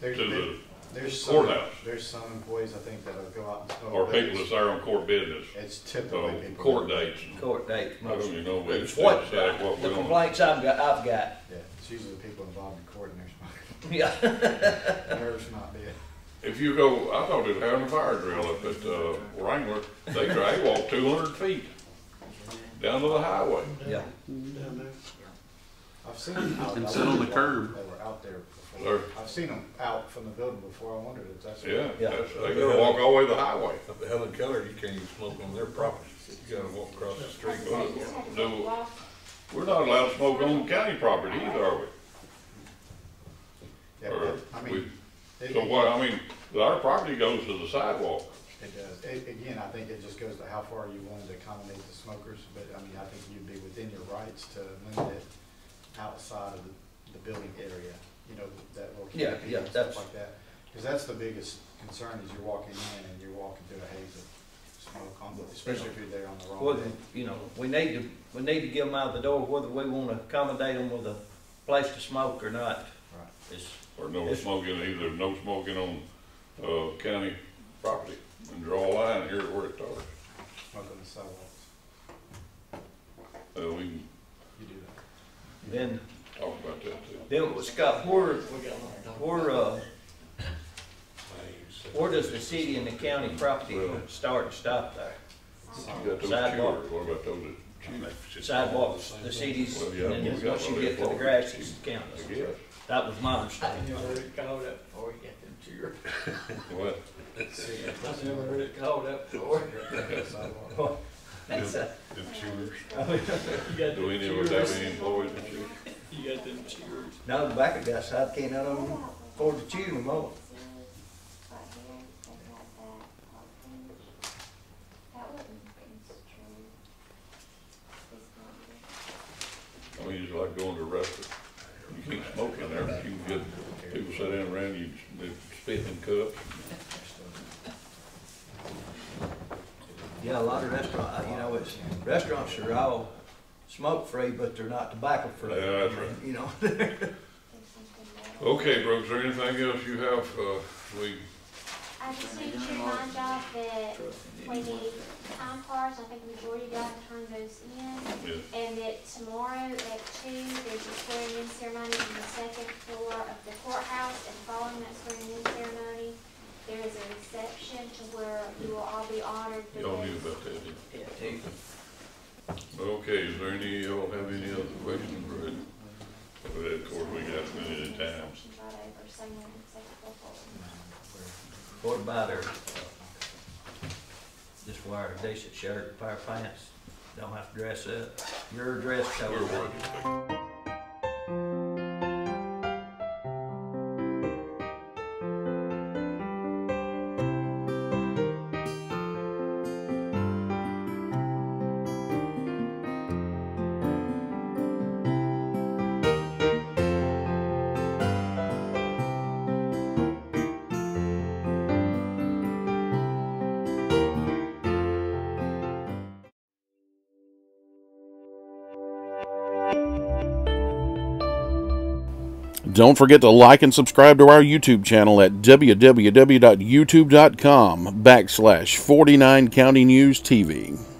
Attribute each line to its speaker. Speaker 1: There's,
Speaker 2: to
Speaker 1: there-
Speaker 2: the
Speaker 1: there's some,
Speaker 2: courthouse,
Speaker 1: there's some employees, I think, that'll go out and smoke.
Speaker 2: or
Speaker 1: but
Speaker 2: people that's there on court business,
Speaker 1: It's typically
Speaker 2: uh,
Speaker 1: people.
Speaker 2: court dates.
Speaker 3: court dates
Speaker 2: I don't
Speaker 3: mostly.
Speaker 2: even know what
Speaker 3: It's
Speaker 2: it's
Speaker 3: what,
Speaker 2: like, what
Speaker 3: the
Speaker 2: we're on.
Speaker 3: complaints I've got, I've got,
Speaker 1: Yeah, it's usually the people involved in court and they're
Speaker 3: yeah,
Speaker 1: smoking, nerves might be.
Speaker 2: If you go, I thought they were having a fire drill up at uh, Wrangler, they drag walk two hundred feet down to the highway.
Speaker 3: yeah.
Speaker 4: Down there.
Speaker 1: I've seen them out.
Speaker 5: And
Speaker 1: I
Speaker 5: sit on the
Speaker 1: wondered why
Speaker 5: curb.
Speaker 1: They were out there before.
Speaker 2: Or-
Speaker 1: I've seen them out from the building before. I wondered if that's.
Speaker 2: Yeah,
Speaker 3: Yeah.
Speaker 2: that's, they gotta walk all the way to the highway.
Speaker 6: Up at Helen Keller, you can't even smoke on their property. You gotta walk across the street.
Speaker 2: No, we're not allowed to smoke on county property either, are we?
Speaker 1: Yeah,
Speaker 2: Or
Speaker 1: but, I
Speaker 2: we-
Speaker 1: mean, it,
Speaker 2: So what, I mean, our property goes to the sidewalk.
Speaker 1: it does. It, again, I think it just goes to how far you wanted to accommodate the smokers, but I mean, I think you'd be within your rights to limit it outside of the, the building area, you know, that little
Speaker 3: Yeah,
Speaker 1: canopy
Speaker 3: yeah,
Speaker 1: and stuff
Speaker 3: that's-
Speaker 1: like that. Cause that's the biggest concern is you're walking in and you're walking through a haze of smoke on, especially if you're there on the wrong
Speaker 3: Well,
Speaker 1: day.
Speaker 3: you know, we need to, we need to get them out the door, whether we wanna accommodate them with a place to smoke or not,
Speaker 1: Right.
Speaker 3: it's,
Speaker 2: Or no
Speaker 3: Yes.
Speaker 2: smoking, either no smoking on, uh, county property, and draw a line here where it starts.
Speaker 1: Smoke on the sidewalks.
Speaker 2: Uh, we can
Speaker 1: You do that.
Speaker 3: then,
Speaker 2: talk about that too.
Speaker 3: then, Scott, where, where, uh, where does the city and the county property
Speaker 2: Well-
Speaker 3: start and stop there?
Speaker 2: You got those
Speaker 3: Sidewalk.
Speaker 2: chewers, what about those that chew?
Speaker 3: Sidewalks, the cities,
Speaker 2: Well,
Speaker 3: and
Speaker 2: yeah, we
Speaker 3: then
Speaker 2: got
Speaker 3: once you
Speaker 2: one
Speaker 3: get to the
Speaker 2: there.
Speaker 3: grass, it's the
Speaker 2: I
Speaker 3: counties.
Speaker 2: guess,
Speaker 3: That was my understanding.
Speaker 4: You never heard it called up before you got them cheered.
Speaker 2: what,
Speaker 4: I never heard it called up before.
Speaker 3: That's a-
Speaker 6: Them chewers.
Speaker 4: You got
Speaker 2: do
Speaker 4: them
Speaker 2: any of us
Speaker 4: cheers.
Speaker 2: have any employees that chew?
Speaker 4: You got them cheers.
Speaker 3: Now the back of that side, can't none of them afford to chew no more.
Speaker 2: I mean, it's like going to a restaurant, you can't smoke in there, but you can get, people sit down around you, they spit in cups.
Speaker 3: Yeah, a lot of restaurant, uh, you know, it's, restaurants are all smoke-free, but they're not tobacco-free.
Speaker 2: Yeah, that's right.
Speaker 3: You know,
Speaker 2: Okay, Brooks, is there anything else you have, uh, we,
Speaker 7: I just need to remind y'all that we need time cards, I think the majority of y'all turned those in.
Speaker 2: yeah,
Speaker 7: And that tomorrow at two, there's a swearing in ceremony on the second floor of the courthouse. And following that swearing in ceremony, there is a reception to where you will all be honored.
Speaker 2: y'all knew about
Speaker 7: because-
Speaker 2: that, didn't you? Okay, is there any, y'all have any other questions, Brett? Well, Of course, we got a minute of time.
Speaker 7: Reception's right over, so you're in the second floor forward.
Speaker 3: what about her, just wear a decent shirt, a pair of pants, don't have to dress up, your dress code.
Speaker 2: We're working.
Speaker 8: Don't forget to like and subscribe to our YouTube channel at www.youtube.com backslash 49 County News TV.